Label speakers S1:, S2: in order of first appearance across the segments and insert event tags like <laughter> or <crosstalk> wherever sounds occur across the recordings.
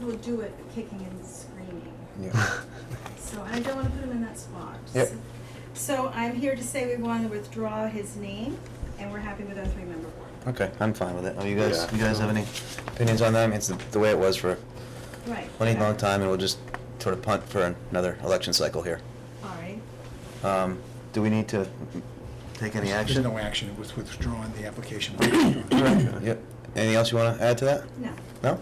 S1: will do it kicking and screaming.
S2: Yeah.
S1: So I don't want to put him in that spot.
S2: Mm-hmm. Yep.
S1: So I'm here to say we want to withdraw his name, and we're happy with our three-member board.
S2: Okay, I'm fine with it. Oh, you guys,
S3: Yeah.
S2: you guys have any opinions on that? I mean, it's the, the way it was for
S1: Right.
S2: plenty long time, and we'll just sort of punt for another election cycle here.
S1: All right.
S2: Um, do we need to take any
S4: There's-
S2: action?
S4: There's no action, it was withdrawn, the application.
S2: All right, Yep. Anything else you want to add to that?
S1: No.
S2: No?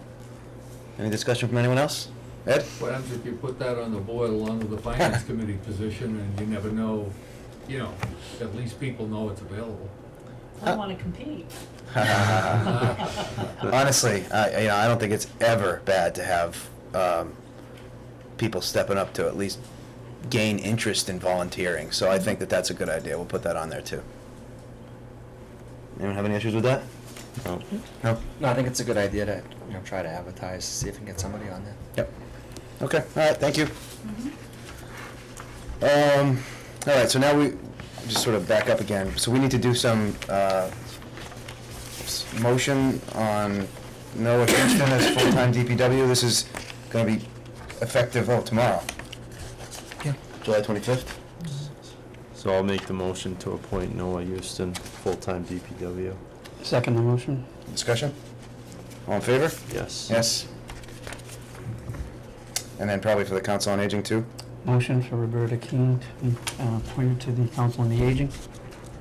S2: Any discussion from anyone else? Ed?
S5: What happens if you put that on the board along with the finance committee position and you never know, you know, at least people know it's available.
S6: I want
S2: <laughs>
S6: to
S7: <laughs>
S6: compete.
S2: Honestly, I, you know, I don't think it's ever bad to have um, people stepping up to at least gain interest in volunteering. So I think that that's a good idea. We'll put that on there too. Anyone have any issues with that?
S3: No.
S2: No.
S8: No, I think it's a good idea to, you know, try to advertise, see if we can get somebody on there.
S2: Yep. Okay. All right. Thank you.
S1: Mhm.
S2: Um, all right, so now we just sort of back up again. So we need to do some uh, s- motion on Noah Kingston as full-time DPW. This is going to be effective, oh, tomorrow. Yeah. July 25th?
S3: So I'll make the motion to appoint Noah Houston, full-time DPW.
S9: Second the motion.
S2: Discussion? All in favor?
S3: Yes.
S2: Yes. And then probably for the Council on Aging, too?
S9: Motion for Roberta King to be uh, appointed to the Council on the Aging.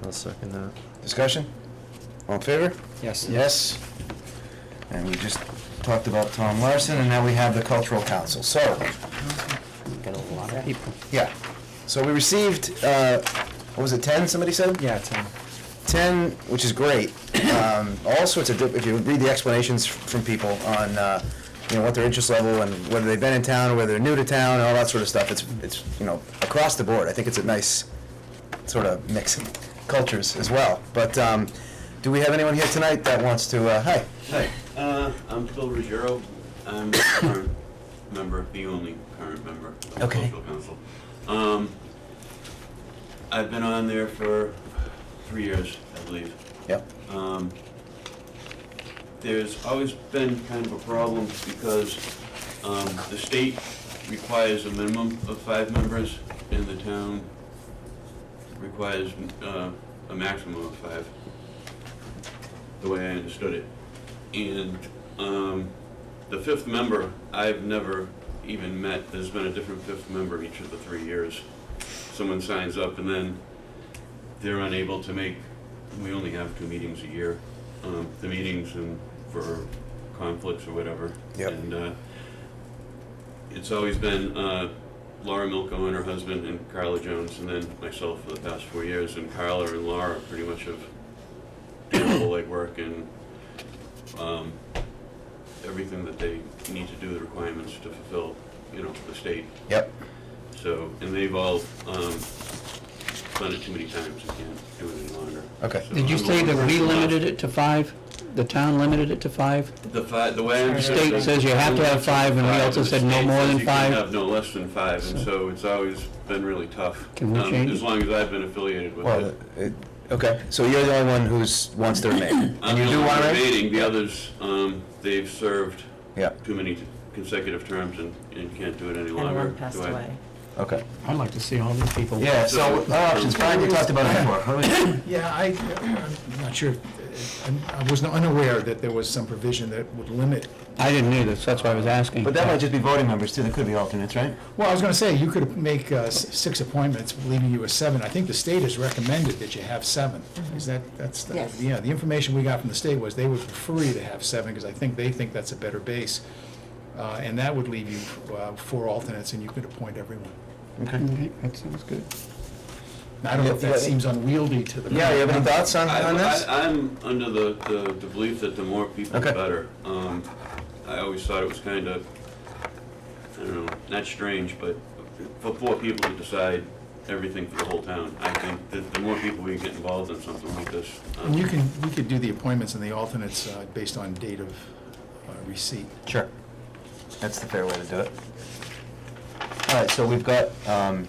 S3: I'll second that.
S2: Discussion? All in favor?
S8: Yes.
S2: Yes. And we just talked about Tom Larson, and now we have the Cultural Council. So,
S8: Got a lot of people.
S2: yeah. So we received, uh, what was it, 10, somebody said?
S8: Yeah, Tim.
S2: 10, which is great. Um, all sorts of, di- if you read the explanations f- from people on, uh, you know, what their interest level and whether they've been in town, or whether they're new to town, and all that sort of stuff, it's, it's, you know, across the board. I think it's a nice sort of mix of cultures as well. But um, do we have anyone here tonight that wants to, uh, hi?
S7: Hi, uh, I'm Phil Ruggiero. I'm a current member, the only current member of the
S2: Okay.
S7: cultural council. Um, I've been on there for three years, I believe.
S2: Yep.
S7: Um, there's always been kind of a problem because, um, the state requires a minimum of five members and the town requires, uh, a maximum of five, the way I understood it. And, um, the fifth member, I've never even met, there's been a different fifth member each of the three years. Someone signs up and then they're unable to make, we only have two meetings a year, um, the meetings and for conflicts or whatever.
S2: Yep.
S7: And, uh, it's always been, uh, Laura Milko and her husband and Carla Jones and then myself for the past four years. And Carla and Laura pretty much have done all the legwork and, um, everything that they need to do, the requirements to fulfill, you know, the state.
S2: Yep.
S7: So, and they've all, um, done it too many times and can't do it any longer.
S2: Okay.
S7: So
S9: Did you
S7: I'm
S9: say
S7: the
S9: that we
S7: one
S9: limited it to five? The town limited it to five?
S7: The fi, the way I
S9: The
S7: understand.
S9: state
S7: it,
S9: says you have to have five, and we
S7: five,
S9: also
S7: the
S9: said no
S7: state
S9: more
S7: says
S9: than five.
S7: You can have no less than five, and so it's always been really tough.
S9: Can we
S7: um,
S9: change
S7: As
S9: it?
S7: long as I've been affiliated with
S2: Well,
S7: it.
S2: it, okay, so you're the only one who's, wants to remain?
S7: I'm
S2: And you
S7: the
S2: do
S7: only
S2: want to
S7: one
S2: remain?
S7: remaining. The others, um, they've served
S2: Yeah,
S7: too many consecutive terms and, and can't do it any
S6: And
S7: longer.
S6: one passed
S7: Do I-
S6: away.
S2: okay.
S9: I'd like to see all these people.
S2: Yeah, so, our options, Brian, you talked about it before. How many-
S4: Yeah, I, I'm not sure, if- I'm- I was unaware that there was some provision that would limit.
S9: I didn't either, so that's why I was asking.
S2: But that might just be voting members too, there could be alternates, right?
S4: Well, I was gonna say, you could make uh, s- six appointments, leaving you with seven. I think the state has recommended that you have seven.
S2: Mm-hmm.
S4: Is that, that's, the-
S6: Yes.
S4: yeah, the information we got from the state was they would prefer you to have seven, because I think they think that's a better base. Uh, And that would leave you uh, four alternates, and you could appoint everyone.
S2: Okay.
S9: Okay, Mm-hmm. That sounds good.
S4: I don't know if
S2: Yeah,
S4: that
S2: yeah.
S4: seems unwieldy to the.
S2: Yeah, you have any thoughts on,
S7: I-
S2: on this?
S7: I- I'm under the, the the belief that the more people, the
S2: Okay.
S7: better. Um, I always thought it was kind of, I don't know, not strange, but for four people to decide everything for the whole town, I think that the more people we get involved in something like this. um,
S4: And you can, we could do the appointments and the alternates uh, based on date of uh, receipt.
S2: Sure. That's the fair way to do it. All right, so we've got, um,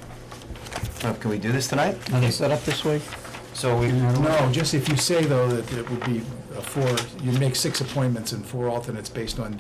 S2: uh, can we do this tonight?
S9: Are they set up this way?
S2: So we,
S4: No, just if you say, though, that it would be uh, four, you'd make six appointments and four alternates based on